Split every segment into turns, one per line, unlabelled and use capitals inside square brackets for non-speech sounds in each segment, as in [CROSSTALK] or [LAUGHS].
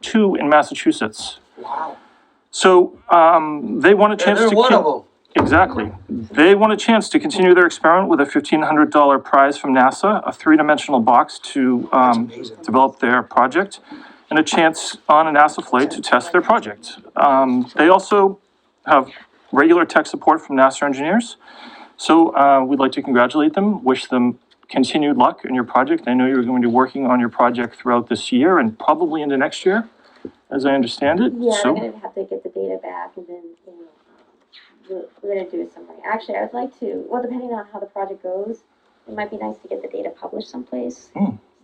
two in Massachusetts.
Wow.
So, um, they want a
And
chance to.
they're one
keep-
of them.
Exactly. They want a chance to continue their experiment with a fifteen hundred dollar prize from NASA, a three-dimensional box to, um,
amazing.
develop their project, and a chance on a NASA flight to test their project. Um, they also have regular tech support from NASA engineers. So, uh, we'd like to congratulate them, wish them continued luck in your project. I know you're going to be working on your project throughout this year and probably into next year, as I understand it.
Yeah,
So-
we're gonna have to get the data back and then, you know, um, we're, we're gonna do something. Actually, I would like to, well, depending on how the project goes, it might be nice to get the data published someplace.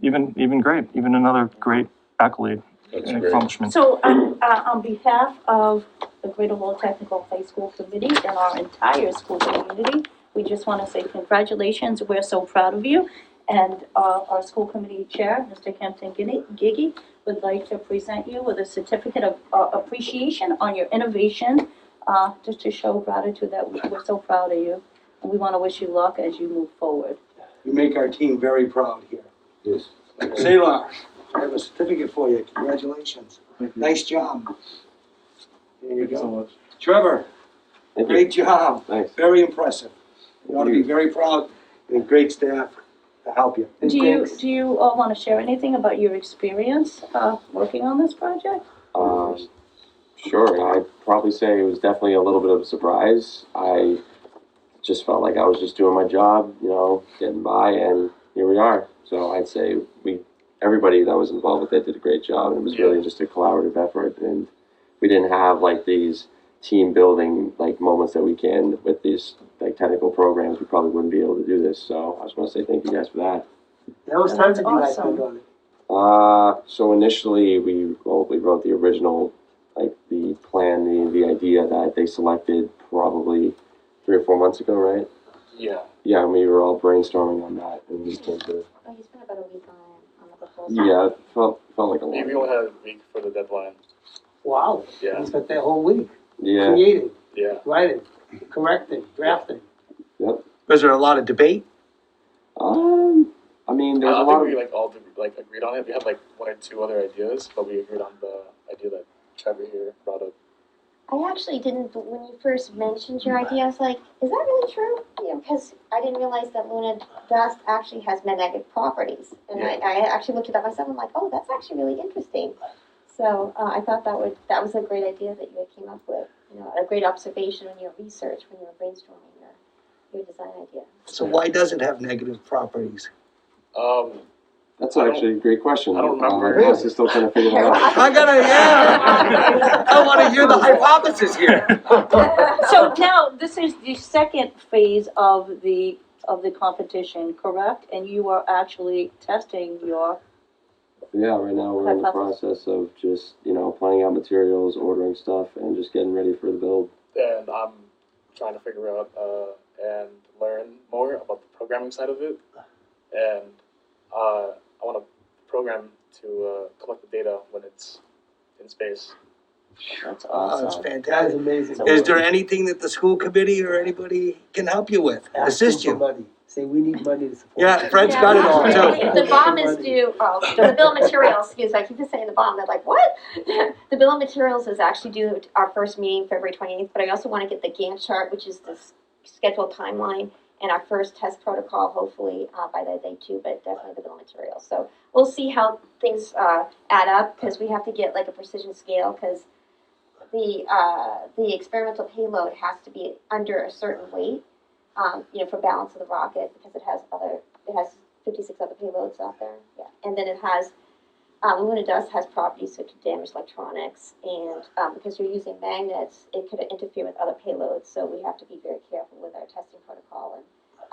even even great, even another great accolade
That's
and
great.
accomplishment.
So, um, uh, on behalf of the Greater Lowell Technical High School Committee and our entire school community, we just want to say congratulations, we're so proud of you. And uh, our school committee chair, Mr. Hampton Giddy- Giggy, would like to present you with a certificate of uh, appreciation on your innovation, uh, just to show gratitude that we- we're so proud of you. And we want to wish you luck as you move forward.
You make our team very proud here.
Yes.
Salar, I have a certificate for you. Congratulations. Nice job. There you go.
much.
Trevor,
Thank you.
great job.
Nice.
Very impressive. You ought to be
Thank
very proud and great staff to help you.
Do you, do you all want to share anything about your experience uh, working on this project?
Um, sure, I'd probably say it was definitely a little bit of a surprise. I just felt like I was just doing my job, you know, getting by, and here we are. So I'd say we, everybody that was involved with it did a great job, and it was really just a collaborative effort. And we didn't have like these team building like moments that we can with these like technical programs. We probably wouldn't be able to do this. So I just want to say thank you guys for that.
That was time to do that.
Awesome.
on it.
Uh, so initially we well, we wrote the original, like the plan, the, the idea that they selected probably three or four months ago, right?
Yeah.
Yeah, and we were all brainstorming on that, and we came to
Oh, you spent about a week on, on the proposal.
yeah, it felt felt like a
We
long.
only had a week for the deadline.
Wow.
Yeah.
You spent that whole week
Yeah,
creating,
Yeah.
writing, correcting, drafting.
Yep.
Was there a lot of debate?
um, I mean,
Uh, I
there was a
don't
lot
think
of
we like all did, like agreed on it. We had like one or two other ideas, but we agreed on the idea that Trevor here brought up.
I actually didn't, but when you first mentioned your idea, I was like, is that really true? You know, because I didn't realize that Luna dust actually has magnetic properties. And I, I actually looked it up myself, I'm like, oh, that's actually really interesting. So, uh, I thought that would, that was a great idea that you had came up with, you know, a great observation in your research, when you were brainstorming your, your design idea.
So why does it have negative
[LAUGHS]
properties?
Um,
that's
I don't-
actually a great question.
I don't remember.
Uh, my boss is still trying to figure that
[LAUGHS]
out. [LAUGHS]
I gotta,
[LAUGHS]
yeah. I wanna hear the hypothesis here.
[LAUGHS]
So now, this is the second phase of the, of the competition, correct? And you are actually testing your,
Yeah, right now we're in the
Hypothesis.
process of just you know planning out materials, ordering stuff, and just getting ready for the build.
and I'm trying to figure out uh, and learn more about the programming side of it. And uh, I want to program to uh, collect the data when it's in space.
that's
Oh, that's
awesome.
fantastic.
amazing.
Is there anything that the school committee or anybody can help you with, assist you?
Money. Say, we need money to support.
Yeah, Fred's got it all too.
The bomb is due, oh, the bill of materials, excuse me, I keep just saying the bomb, I'm like, what? [LAUGHS] The bill of materials is actually due at our first meeting, February twenty-eighth, but I also wanna get the Gantt chart, which is the s- scheduled timeline, and our first test protocol, hopefully, uh, by that day too, but definitely the bill of materials. So we'll see how things, uh, add up, cause we have to get like a precision scale, cause the, uh, the experimental payload has to be under a certain weight, um, you know, for balance of the rocket, because it has other, it has fifty-six other payloads out there. Yeah. And then it has, um, Luna dust has properties that could damage electronics, and, um, because you're using magnets, it could interfere with other payloads, so we have to be very careful with our testing protocol and,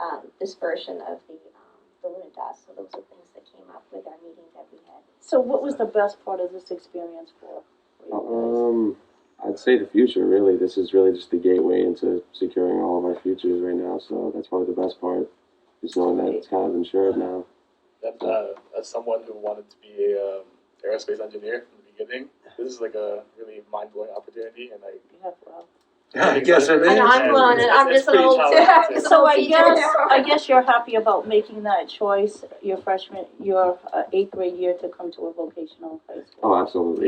um, dispersion of the, um, the Luna dust, so those are things that came up with our meeting that we had.
So what was the best part of this experience for? for
Um, I'd say the future. Really, this is really just the gateway into securing all of our futures right now. So that's probably the best part, is knowing that it's kind of insured now.
And uh, as someone who wanted to be a um, aerospace engineer from the beginning, this is like a really mind blowing opportunity. And like,
you guys? Yeah, wow.
Yes, it
I know,
is.
I'm uh, blown, and I'm
It's- it's
just an
pretty
old,
challenging.
[LAUGHS] just an
So
old
I
teacher.
guess, I guess you're happy about making that choice, your freshman, your uh, eighth grade year to come to a vocational high school.
Oh, absolutely.